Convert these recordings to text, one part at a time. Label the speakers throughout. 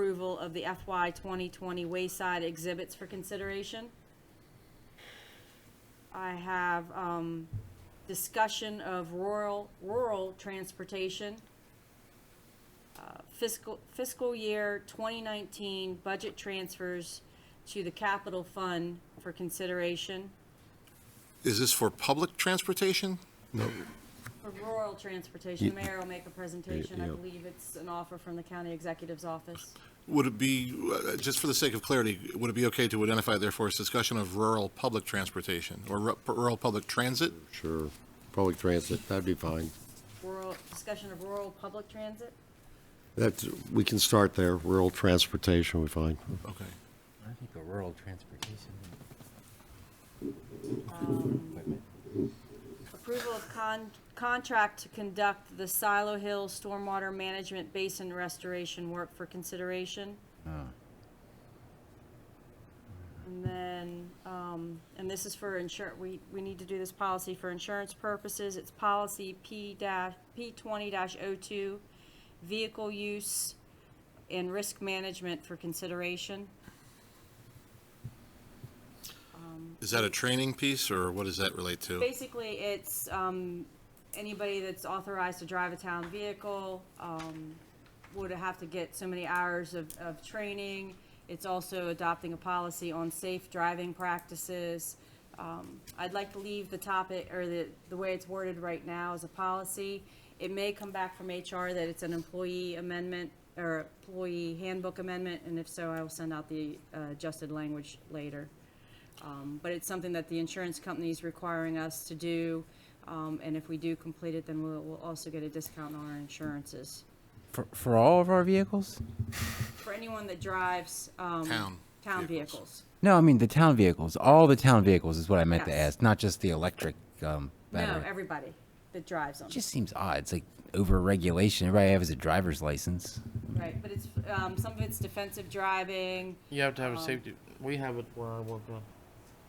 Speaker 1: approval of the FY 2020 wayside exhibits for consideration. I have um, discussion of rural, rural transportation. Uh, Fiscal, fiscal year 2019 budget transfers to the capital fund for consideration
Speaker 2: Is this for public transportation?
Speaker 1: for rural transportation. The
Speaker 3: Ye-
Speaker 1: mayor will make a presentation. I
Speaker 3: yeah.
Speaker 1: believe it's an offer from the county executive's office.
Speaker 2: Would it be, uh, just for the sake of clarity, would it be okay to identify therefore as discussion of rural public transportation or ru- rural public transit?
Speaker 3: Sure, public transit, that'd be fine.
Speaker 1: Rural, discussion of rural public transit?
Speaker 3: That's, we can start there, rural transportation, we find.
Speaker 2: Okay.
Speaker 4: I think a rural transportation. equipment.
Speaker 1: Approval of con, contract to conduct the Silo Hill Stormwater Management Basin Restoration Work for consideration. And then, um, and this is for insur, we, we need to do this policy for insurance purposes. It's policy P dash, P twenty dash oh two, vehicle use and risk management for consideration.
Speaker 2: Is that a training piece or what does that relate to?
Speaker 1: Basically, it's, um, anybody that's authorized to drive a town vehicle, um, would have to get so many hours of, of training. It's also adopting a policy on safe driving practices. Um, I'd like to leave the topic, or the, the way it's worded right now as a policy. It may come back from HR that it's an employee amendment, or employee handbook amendment, and if so, I will send out the uh, adjusted language later. Um, But it's something that the insurance company is requiring us to do, um, and if we do complete it, then we'll, we'll also get a discount on our insurances.
Speaker 4: For, for all of our vehicles?
Speaker 1: For anyone that drives, um.
Speaker 2: Town
Speaker 1: Town
Speaker 2: vehicles.
Speaker 1: vehicles.
Speaker 4: No, I mean the town vehicles. All the town vehicles is what I meant to
Speaker 1: Yes.
Speaker 4: ask, not just the electric um,
Speaker 1: No,
Speaker 4: battery.
Speaker 1: everybody that drives them,
Speaker 4: it just seems odd. It's like over regulation. Everybody has a driver's license.
Speaker 1: right? But it's, um, some of it's defensive driving,
Speaker 5: You have to
Speaker 1: Um,
Speaker 5: have a safety. We have it where I work now.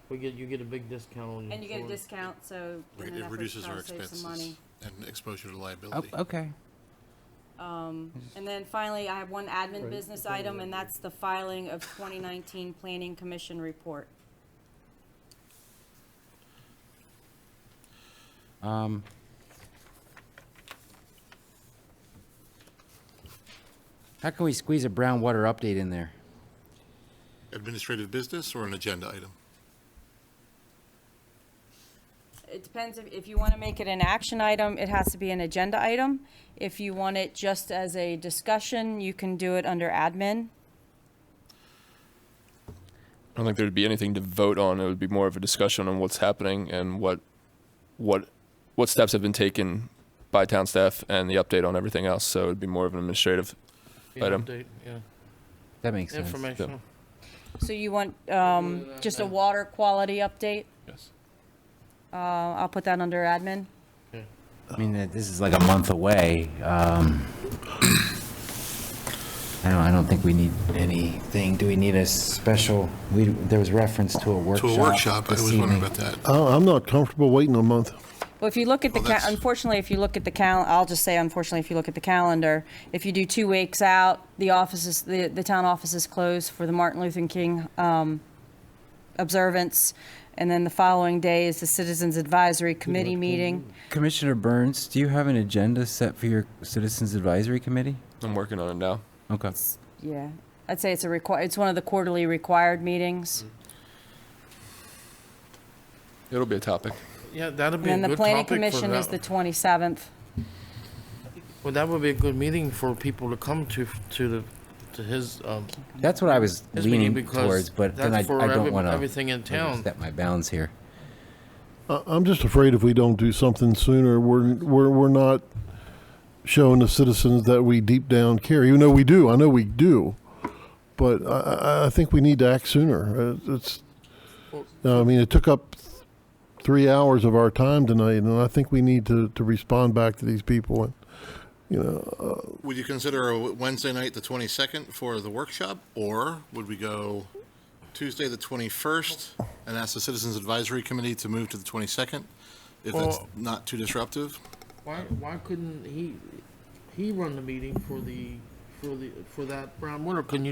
Speaker 5: We get you get a big discount on your
Speaker 1: and you get a
Speaker 5: insurance.
Speaker 1: discount, so. in an
Speaker 2: It
Speaker 1: effort to
Speaker 2: reduces
Speaker 1: try
Speaker 2: our
Speaker 1: to save some
Speaker 2: expenses
Speaker 1: money.
Speaker 2: and exposure to
Speaker 4: Oh,
Speaker 2: liability.
Speaker 4: okay.
Speaker 1: And then finally, I have one admin business item, and that's the filing of twenty nineteen Planning Commission report.
Speaker 4: Um, how can we squeeze a brown water update in there?
Speaker 2: Administrative business or an agenda item?
Speaker 1: It depends if, if you want to make it an action item, it has to be an agenda item. If you want it just as a discussion, you can do it under admin.
Speaker 6: I don't think there'd be anything to vote on. It would be more of a discussion on what's happening and what, what, what steps have been taken by town staff and the update on everything else. So it'd be more of an administrative.
Speaker 5: Yeah,
Speaker 6: item.
Speaker 5: update, yeah.
Speaker 4: That makes sense.
Speaker 5: Informational.
Speaker 1: So you want, um, just a water quality update?
Speaker 6: Yes.
Speaker 1: Uh, I'll put that under admin.
Speaker 4: I mean, uh, this is like a month away. Um, I don't, I don't think we need anything. Do we need a special, we, there was reference to a
Speaker 2: To
Speaker 4: workshop.
Speaker 2: a workshop, I
Speaker 4: this
Speaker 2: was wondering
Speaker 4: evening.
Speaker 2: about that.
Speaker 3: I, I'm not comfortable waiting a month.
Speaker 1: Well, if you look at the,
Speaker 2: Well,
Speaker 1: ca-
Speaker 2: that's-
Speaker 1: unfortunately, if you look at the cal, I'll just say unfortunately, if you look at the calendar, if you do two weeks out, the office is, the, the town office is closed for the Martin Luther King, um, observance. And then the following day is the Citizens Advisory Committee meeting.
Speaker 4: Commissioner Burns, do you have an agenda set for your Citizens Advisory Committee?
Speaker 6: I'm working on it now.
Speaker 4: Okay.
Speaker 1: Yeah, I'd say it's a require, it's one of the quarterly required meetings.
Speaker 6: It'll be a topic.
Speaker 5: Yeah, that'd
Speaker 1: And
Speaker 5: be a
Speaker 1: then
Speaker 5: good
Speaker 1: the
Speaker 5: topic
Speaker 1: planning
Speaker 5: for
Speaker 1: commission is the
Speaker 5: that.
Speaker 1: twenty-seventh.
Speaker 5: Well, that would be a good meeting for people to come to to the to his um
Speaker 4: That's what I was
Speaker 5: his meeting
Speaker 4: leaning
Speaker 5: because
Speaker 4: towards, but
Speaker 5: that's
Speaker 4: then I, I
Speaker 5: for
Speaker 4: don't
Speaker 5: every-
Speaker 4: want to
Speaker 5: everything in town.
Speaker 4: step my bounds here.
Speaker 7: I- I'm just afraid if we don't do something sooner, we're, we're, we're not showing the citizens that we deep down care, even though we do, I know we do. But I, I, I think we need to act sooner. Uh, It's, I mean, it took up three hours of our time tonight, and I think we need to, to respond back to these people. And, you know,
Speaker 2: Would you consider a Wednesday night, the 22nd, for the workshop? Or would we go Tuesday, the 21st, and ask the Citizens Advisory Committee to move to the 22nd? If that's
Speaker 5: Well-
Speaker 2: not too disruptive?
Speaker 5: Why why couldn't he he run the meeting for the for the for that brown water? Couldn't you